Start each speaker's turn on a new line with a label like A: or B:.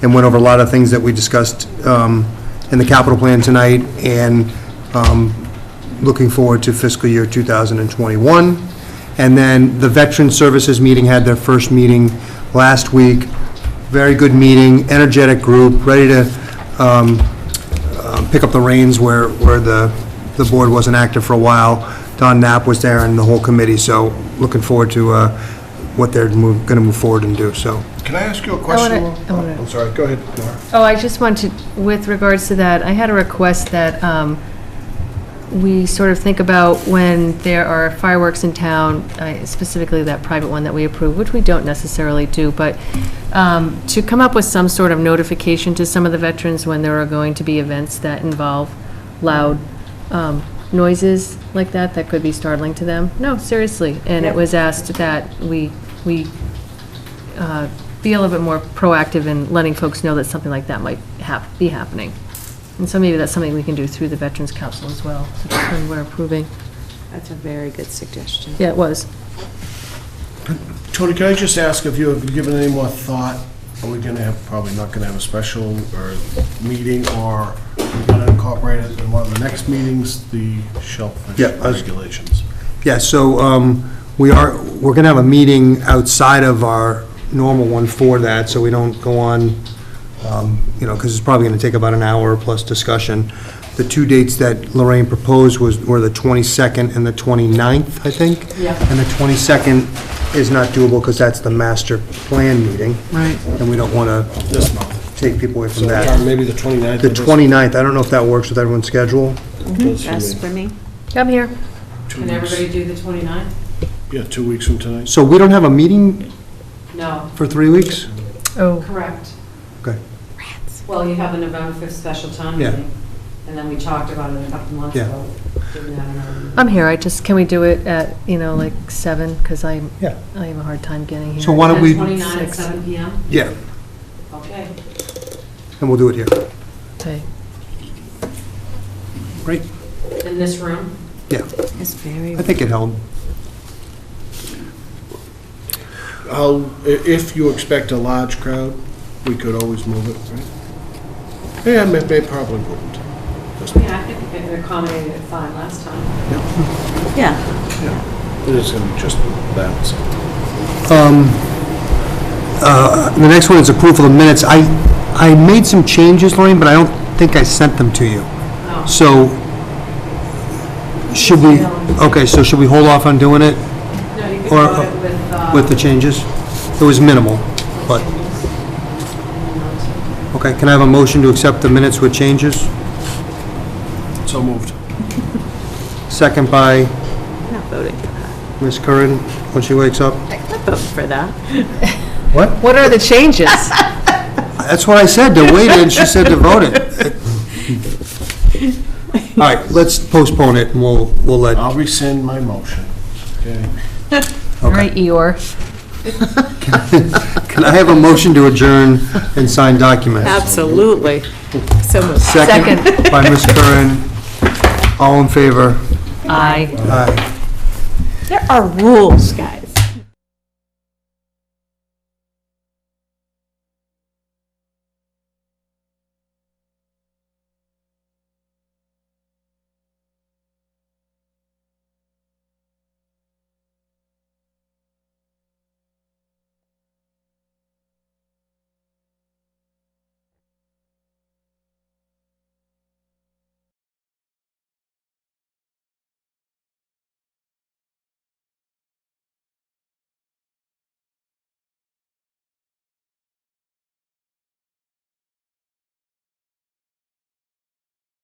A: and went over a lot of things that we discussed um, in the capital plan tonight, and um, looking forward to fiscal year 2021. And then the Veteran Services meeting had their first meeting last week. Very good meeting, energetic group, ready to um, um, pick up the reins where, where the, the board wasn't active for a while. Don Knapp was there and the whole committee, so looking forward to uh, what they're going to move forward and do, so.
B: Can I ask you a question?
C: wanna- I
B: Lou?
C: wanna-
B: I'm sorry, go ahead. Nora.
C: Oh, I just wanted, with regards to that, I had a request that um, we sort of think about when there are fireworks in town, I- specifically that private one that we approve, which we don't necessarily do, but um, to come up with some sort of notification to some of the veterans when there are going to be events that involve loud um, noises like that, that could be startling to them. No, seriously. And it was asked that we, we uh, be a little bit more proactive in letting folks know that something like that might hap, be happening. And so maybe that's something we can do through the Veterans Council as well, so that's when we're approving.
D: That's a very good suggestion.
C: Yeah, it was.
B: Tony, can I just ask if you have given any more thought? Are we going to have, probably not going to have a special or meeting, or we're going to incorporate it in one of the next meetings, the shellfish
A: Yeah, I was-
B: regulations?
A: Yeah, so um, we are, we're going to have a meeting outside of our normal one for that, so we don't go on, um, you know, because it's probably going to take about an hour plus discussion. The two dates that Lorraine proposed was, were the 22nd and the 29th, I think?
D: Yeah.
A: And the 22nd is not doable because that's the master plan meeting.
D: Right.
A: And we don't want to
B: This month.
A: take people away from
B: So John,
A: that.
B: maybe the 29th.
A: The 29th, I don't know if that works with everyone's schedule.
D: Best for me?
C: I'm here.
B: Two
E: Can
B: weeks,
E: everybody do the 29th?
B: yeah, two weeks from tonight.
A: So we don't have a meeting
E: No,
A: for three weeks?
C: Oh,
E: correct.
A: Okay.
E: Well, you have a November 5th special time
A: Yeah.
E: meeting, and then we talked about it a couple months
A: Yeah.
E: ago. Didn't have another meeting.
C: I'm here, I just, can we do it at, you know, like seven, because I,
A: Yeah.
C: I have a hard time getting here.
A: So why don't we-
E: 29 at
C: Six.
E: 7 PM?
A: Yeah,
E: Okay.
A: and we'll do it here.
C: Okay.
A: Great.
E: In this room?
A: Yeah,
D: It's very,
A: I think it held.
B: I'll- i- If you expect a large crowd, we could always move it, right? Yeah, may- they probably wouldn't. Just-
E: Yeah, I think they accommodated it fine last time.
D: yeah.
B: It is going to be just that.
A: Um, uh, The next one is approval of minutes. I, I made some changes, Lorraine, but I don't think I sent them to you.
E: No.
A: So, should we, okay, so should we hold off on doing it
E: No, you could
A: Or-
E: vote it with, uh,
A: with the changes? It was minimal, but, okay, can I have a motion to accept the minutes with changes?
B: So moved.
A: Second by
D: I'm not voting for that.
A: Ms. Curran, when she wakes up?
D: I'm not voting for that.
A: What?
C: What are the changes?
A: That's what I said, to wait, and she said to vote it. All right, let's postpone it, and we'll, we'll let
B: I'll rescind my motion. Okay.
C: All right, Eeyore.
A: Can I have a motion to adjourn and sign documents?
D: Absolutely. So moved.
A: Second by Ms. Curran. All in favor?
C: Aye.
A: Aye.
D: There are rules, guys.